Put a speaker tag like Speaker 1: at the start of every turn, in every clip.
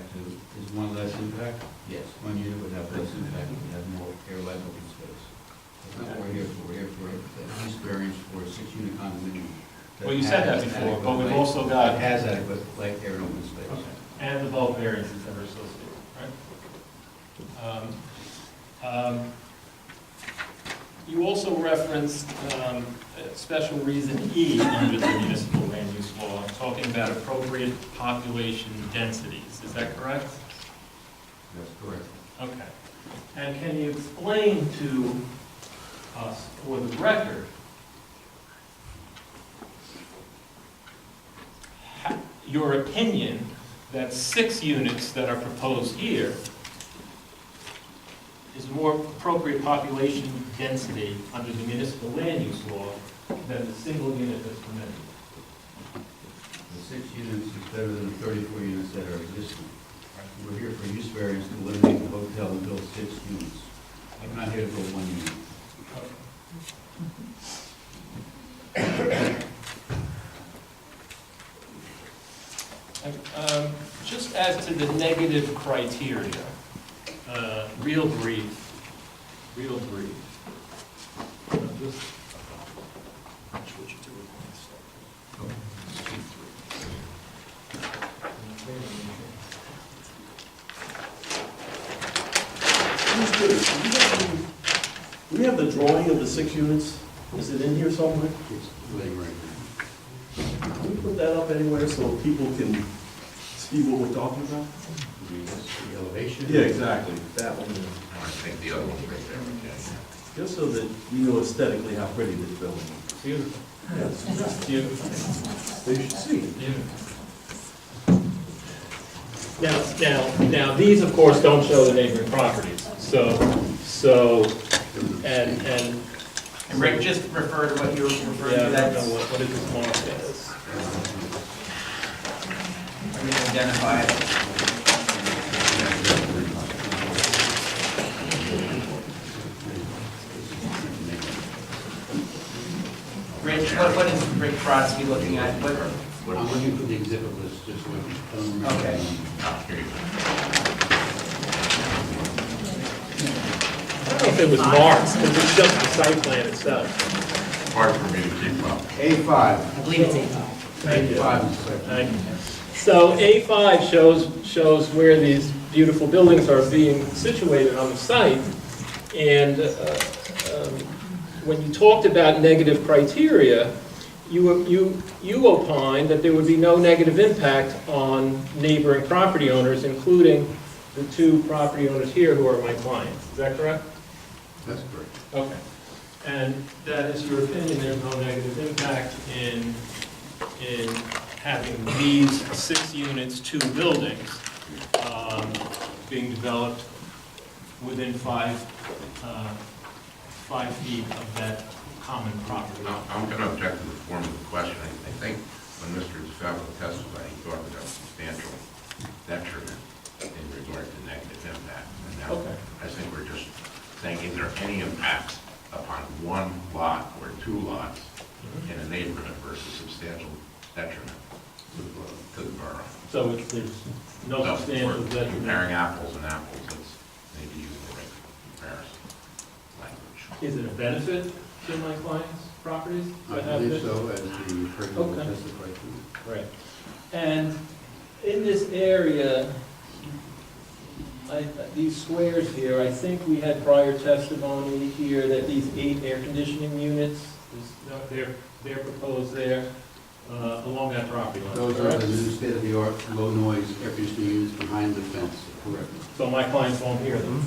Speaker 1: with one less impact,
Speaker 2: Yes.
Speaker 1: one unit would have less impact, we have more airline open space. That's not what we're here for, we're here for a use variance for a six-unit condominium.
Speaker 3: Well, you said that
Speaker 1: has
Speaker 3: before, but we've
Speaker 1: adequate
Speaker 3: also
Speaker 1: light-
Speaker 3: got,
Speaker 1: That has adequate light, air, and open
Speaker 3: Okay.
Speaker 1: space.
Speaker 3: and the bulk variances that are associated, right? Um, um, You also referenced um, a special reason E under the municipal land use law, talking about appropriate population densities, is that correct?
Speaker 1: That's correct.
Speaker 3: Okay. And can you explain to us, for the record, ha- your opinion that six units that are proposed here is more appropriate population density under the municipal land use law than the single unit that's permitted?
Speaker 1: The six units is better than the thirty-four units that are existing. We're here for use variance to eliminate the hotel and build six units. I'm not here to build one unit.
Speaker 3: Um, Just as to the negative criteria, uh, real brief, real brief. Uh, just- I'm not sure what you do with one, so. Just keep three.
Speaker 4: Mr. Curtis, do you have the- Do we have the drawing of the six units? Is it in here somewhere?
Speaker 1: It's laying right now.
Speaker 4: Can we put that up anywhere so people can see what we're talking about?
Speaker 1: The elevation?
Speaker 4: exactly. That one. Just so that we know aesthetically how pretty this building is.
Speaker 3: Beautiful.
Speaker 4: Yes,
Speaker 3: Beautiful.
Speaker 4: They should see it.
Speaker 3: Now, now, now, these, of course, don't show the neighboring properties, so, so, and, and.
Speaker 2: Rick, just refer to what you were referring
Speaker 3: Yeah,
Speaker 2: to,
Speaker 3: I don't know what,
Speaker 2: that's,
Speaker 3: what is this mark is.
Speaker 2: I mean, identify it. Rich, what, what is Rick Brodsky looking at? What,
Speaker 1: Well, I'm looking for the exhibit list, just so I can remember.
Speaker 2: Okay.
Speaker 3: I don't know if it was marked, because it's just the site plan itself.
Speaker 5: hard for me to keep up.
Speaker 1: A five.
Speaker 2: I believe it's eight.
Speaker 3: Thank you.
Speaker 1: Five is correct.
Speaker 3: Thank you. So A5 shows, shows where these beautiful buildings are being situated on the site. And uh, um, when you talked about negative criteria, you, you, you opined that there would be no negative impact on neighboring property owners, including the two property owners here who are my clients. Is that correct?
Speaker 1: That's correct.
Speaker 3: Okay. And that is your opinion, there's no negative impact in, in having these six units, two buildings, um, being developed within five, uh, five feet of that common property line?
Speaker 5: Now, I'm going to object to the form of the question. I I think when Mr. DeFalco testified, he talked about substantial detriment in regard to negative impact. And now,
Speaker 3: Okay.
Speaker 5: I think we're just saying, is there any impact upon one lot or two lots in a neighborhood versus substantial detriment to the bor- to the borough?
Speaker 3: So it's, there's no
Speaker 5: So,
Speaker 3: substantial
Speaker 5: we're
Speaker 3: detriment.
Speaker 5: Comparing apples and apples, let's maybe use the right comparison language.
Speaker 3: Is it a benefit to my client's properties?
Speaker 1: I
Speaker 3: to have
Speaker 1: believe
Speaker 3: this?
Speaker 1: so, as the person will
Speaker 3: Okay.
Speaker 1: testify to.
Speaker 3: Right. And in this area, I- these squares here, I think we had prior testimony here that these eight air conditioning units, is- no, they're, they're proposed there uh, along that property line,
Speaker 1: Those are the
Speaker 3: correct?
Speaker 1: new state-of-the-art, low-noise air conditioning units behind the fence. Correct.
Speaker 3: So my clients won't hear them.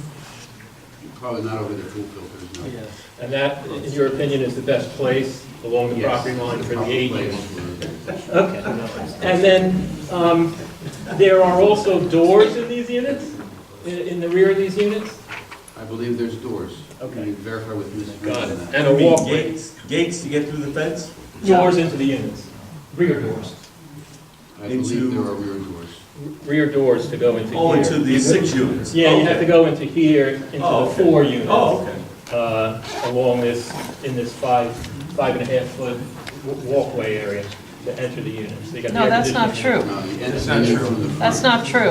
Speaker 1: Probably not over the pool filters, no. Mm-hmm.
Speaker 3: And that, in your opinion, is the best place along the
Speaker 1: Yes,
Speaker 3: property line for the
Speaker 1: proper
Speaker 3: eight
Speaker 1: place
Speaker 3: units?
Speaker 1: for-
Speaker 3: Okay. And then, um, there are also doors in these units, in- in the rear of these units?
Speaker 1: I believe there's doors.
Speaker 3: Okay.
Speaker 1: You can verify with Ms.
Speaker 3: Got it.
Speaker 1: Rinson that.
Speaker 3: And a
Speaker 4: You mean
Speaker 3: walkway.
Speaker 4: gates- Gates to get through the fence?
Speaker 3: Doors into the units. Rear doors.
Speaker 1: I believe
Speaker 4: Into-
Speaker 1: there are rear doors.
Speaker 3: Rear doors to go into here.
Speaker 4: Oh, into the six units?
Speaker 3: Yeah, you have
Speaker 4: Okay.
Speaker 3: to go into here, into
Speaker 4: Oh,
Speaker 3: the
Speaker 4: okay.
Speaker 3: four units.
Speaker 4: Oh, okay.
Speaker 3: Uh, along this, in this five, five and a half foot w- walkway area to enter the units. They got the
Speaker 6: No,
Speaker 3: air
Speaker 6: that's not
Speaker 3: conditioning.
Speaker 6: true.
Speaker 1: No, the end
Speaker 5: That's not
Speaker 1: unit
Speaker 5: true.
Speaker 1: from the front.
Speaker 6: That's not true.